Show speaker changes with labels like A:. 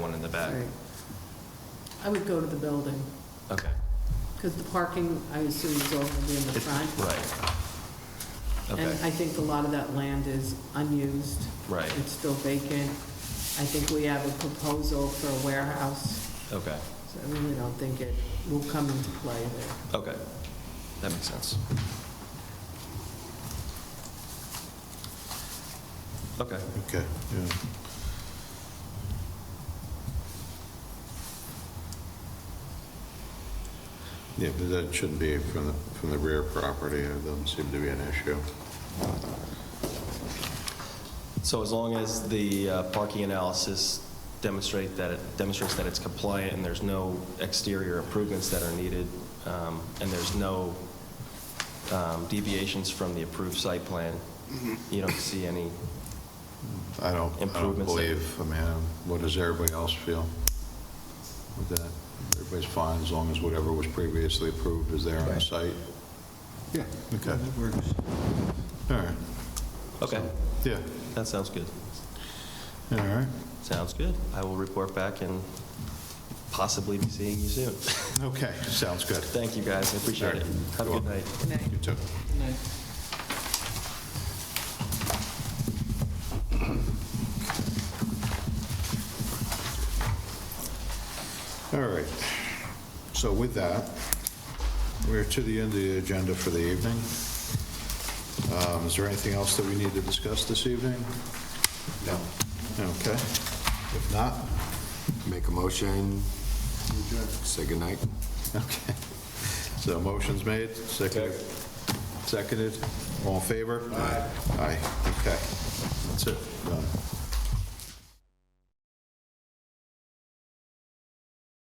A: back.
B: Right. I would go to the building,
A: Okay,
B: because the parking, I assume, is all going to be in the
A: It's-
B: front.
A: right. Okay,
B: And I think a lot of that land is unused.
A: Right.
B: It's still vacant. I think we have a proposal for a warehouse,
A: okay,
B: so I really don't think it will come into play there.
A: okay. That makes sense. Okay,
C: Okay, yeah. Yeah, but that shouldn't be from the, from the rear property, it doesn't seem to be an issue.
A: so as long as the uh, parking analysis demonstrate that, it demonstrates that it's compliant and there's no exterior improvements that are needed, um, and there's no um, deviations from the approved site plan, you don't see any,
C: I don't, I don't
A: Improvements that-
C: believe, I mean, uh, what does everybody else feel with that? Everybody's fine as long as whatever was previously approved is there on the site? Yeah. Okay, all right,
A: okay,
C: yeah,
A: that sounds good.
C: all right,
A: Sounds good. I will report back and possibly be seeing you soon.
C: okay, sounds good.
A: Thank you, guys. I appreciate it. Have a good night.
C: You too. All right. So with that, we're to the end of the agenda for the evening. Um, Is there anything else that we need to discuss this evening? No. Okay. If not,
D: Make a motion. Say goodnight.
C: okay. So motion's made, seconded, seconded, all in favor? Aye. Aye, okay. That's it, done.